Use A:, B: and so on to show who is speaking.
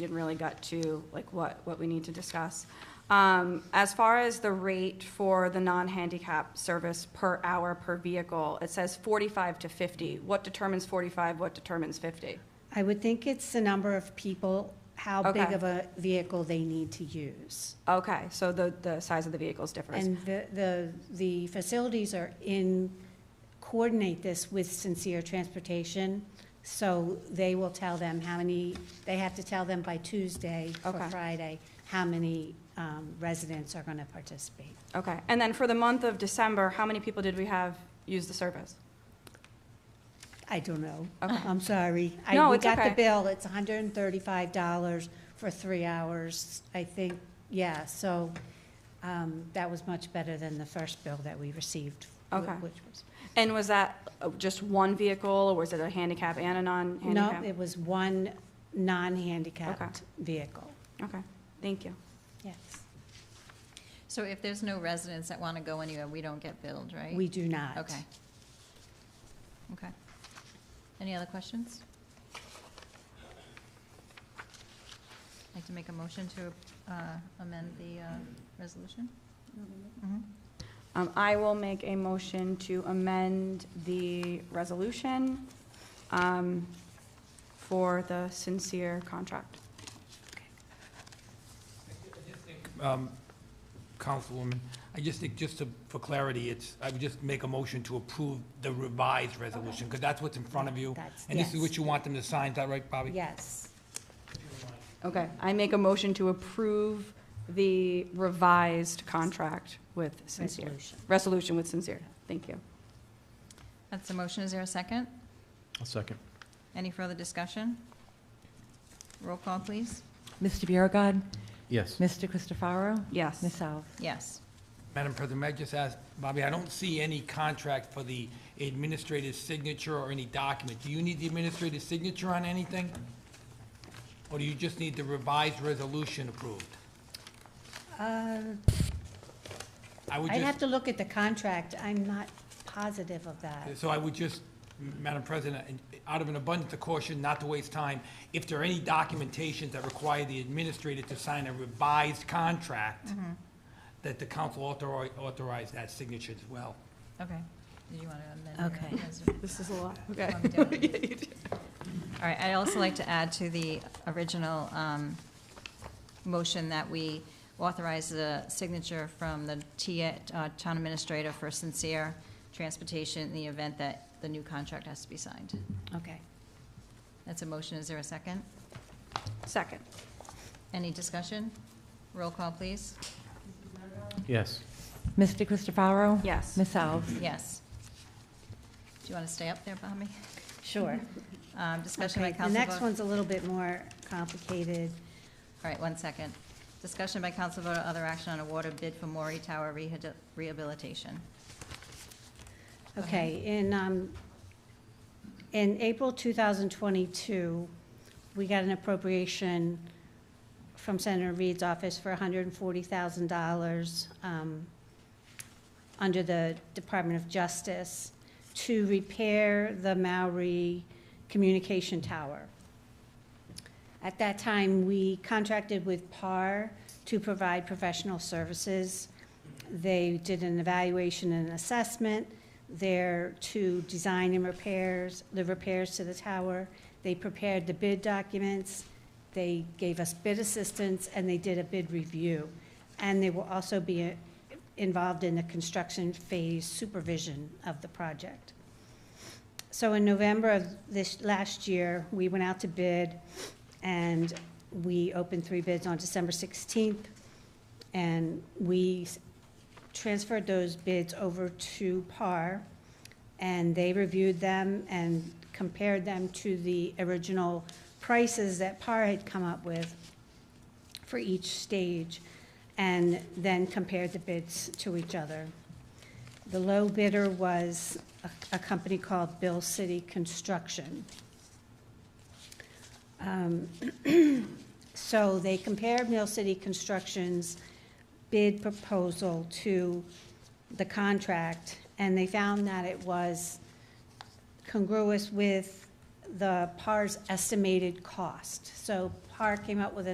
A: didn't really get to, like, what, what we need to discuss. Um, As far as the rate for the non-handicap service per hour per vehicle, it says 45 to 50. What determines 45, what determines 50?
B: I would think it's the number of people, how big
A: Okay.
B: of a vehicle they need to use.
A: Okay, so the, the size of the vehicles differs.
B: And the, the, the facilities are in, coordinate this with Sincere Transportation, so they will tell them how many, they have to tell them by Tuesday or
A: Okay.
B: Friday, how many um, residents are going to participate.
A: Okay, and then for the month of December, how many people did we have use the service?
B: I don't know.
A: Okay.
B: I'm sorry. I-
A: No,
B: we
A: it's
B: got the
A: okay.
B: bill, it's $135 for three hours, I think, yeah, so um, that was much better than the first bill that we received. wh-
A: Okay.
B: Which was,
A: And was that uh, just one vehicle, or was it a handicap and a
B: no,
A: non-handicap?
B: it was one non-handicapped vehicle,
A: Okay, thank you.
B: yes.
C: So if there's no residents that want to go anywhere, we don't get billed, right?
B: We do not.
C: Okay. Okay. Any other questions? I'd like to make a motion to uh, amend the uh, resolution?
B: Mm-hmm.
C: Mhm.
A: Um, I will make a motion to amend the resolution um, for the sincere contract.
D: Um, Councilwoman, I just think, just to, for clarity, it's, I would just make a motion to approve the revised resolution, because that's what's in front of you.
B: That's-
D: And this is
B: yes.
D: what you want them to sign, is that right, Bobby?
B: Yes,
A: Okay, I make a motion to approve the revised contract with sincere.
B: resolution.
A: Resolution with sincere, thank you.
C: That's the motion. Is there a second?
E: I'll second.
C: Any further discussion? Roll call, please.
F: Mr. Biragad.
E: Yes.
F: Mr. Christopherow.
A: Yes.
F: Ms. Alves.
C: Yes.
D: Madam President, may I just ask, Bobby, I don't see any contract for the administrative signature or any document. Do you need the administrative signature on anything? Or do you just need the revised resolution approved?
B: Uh,
D: I would
B: I'd have
D: just,
B: to look at the contract, I'm not positive of that.
D: so I would just, Madam President, in- out of an abundance of caution, not to waste time, if there are any documentations that require the administrator to sign a revised contract, that the council authori- authorize that signature as well.
C: Okay. Did you want to amend?
B: Okay.
C: your resolution?
A: This is a lot, okay.
C: I'm down. All right, I'd also like to add to the original um, motion that we authorize the signature from the TA uh, Town Administrator for sincere transportation in the event that the new contract has to be signed.
B: Okay.
C: That's a motion, is there a second?
A: Second,
C: Any discussion? Roll call, please.
E: Yes.
F: Mr. Christopherow.
A: yes.
F: Ms. Alves.
C: Yes. Do you want to stay up there, Bobby?
B: Sure.
C: Um, Discussion by
B: Okay, the
C: Council
B: next
C: vote-
B: one's a little bit more complicated.
C: All right, one second. Discussion by council vote, other action on award of bid for Maury Tower rehabil- rehabilitation. Go ahead.
B: Okay, in, um, in April 2022, we got an appropriation from Senator Reed's office for $140,000 um, under the Department of Justice to repair the Maori Communication Tower. At that time, we contracted with PAR to provide professional services. They did an evaluation and assessment. They're to design and repairs, the repairs to the tower. They prepared the bid documents. They gave us bid assistance, and they did a bid review. And they will also be uh, involved in the construction phase supervision of the project. So in November of this, last year, we went out to bid, and we opened three bids on December 16th. And we s- transferred those bids over to PAR, and they reviewed them and compared them to the original prices that PAR had come up with for each stage, and then compared the bids to each other. The low bidder was a, a company called Bill City Construction. Um, So they compared Mill City Construction's bid proposal to the contract, and they found that it was congruous with the PAR's estimated cost. So PAR came up with an